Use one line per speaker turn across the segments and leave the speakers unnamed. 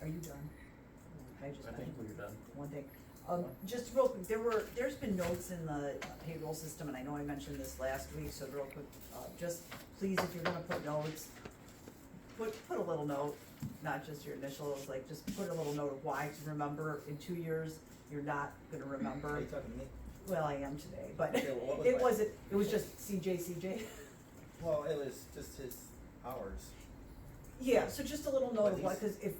Are you done? I just.
I think we're done.
One thing, um, just real quick, there were, there's been notes in the payroll system, and I know I mentioned this last week, so real quick, uh, just please, if you're gonna put notes, put, put a little note, not just your initials, like, just put a little note of why, to remember, in two years, you're not gonna
Are
remember.
you talking to me?
Well, I am today, but
Okay, well, what was
it
my-
wasn't, it was just CJ, CJ.
Well, it was just his hours.
Yeah, so just a little note of what,
What
cause if,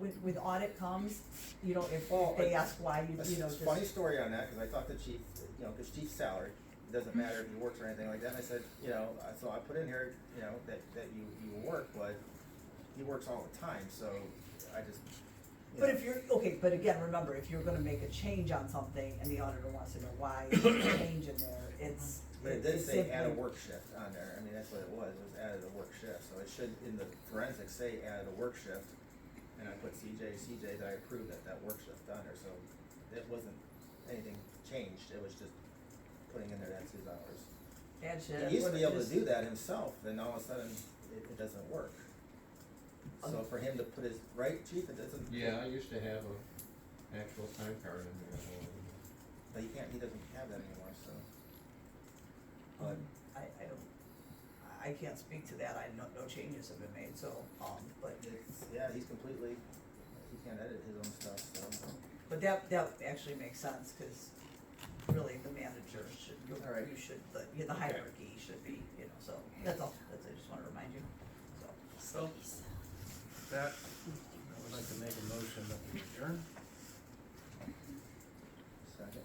with, with audit comes, you know, if
Oh,
they
I-
ask why, you,
A
you know,
s-
just.
funny story on that, cause I talked to chief, you know, cause chief's salary, it doesn't matter if he works or anything like that, and I said, you know, I- so I put in here, you know, that, that you, you work, but he works all the time, so I just, you
But
know.
if you're, okay, but again, remember, if you're gonna make a change on something and the auditor wants to know why there's a change in there, it's.
But it did
it's
say add a
simply-
work shift on there, I mean, that's what it was, it was added a work shift, so it should, in the forensics, say added a work shift. And I put CJ, CJ, that I approved that, that work shift on there, so it wasn't anything changed, it was just putting in there that's his hours.
Add shit.
He used to
what
be
it
able
is.
to do that himself, then all of a sudden, it, it doesn't work. So for him to put his, right, chief, it doesn't.
Yeah, I used to have a actual time card in there.
But he can't, he doesn't have that anymore, so.
Um, I, I don't, I- I can't speak to that, I know, no changes have been made, so, um, but,
It's, yeah, he's completely, he can't edit his own stuff, so.
but that, that actually makes sense, cause really the manager should, you
All right.
you should, the, yeah, the hierarchy should be, you know, so, that's all, that's, I just wanna remind you, so.
So, that, I would like to make a motion that we adjourn.
Second.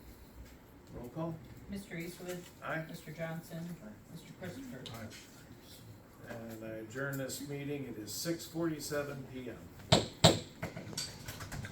Roll call?
Mr. Eastwood,
Aye.
Mr. Johnson,
Aye.
Mr. Christopher.
And I adjourn this meeting. It is six forty-seven PM.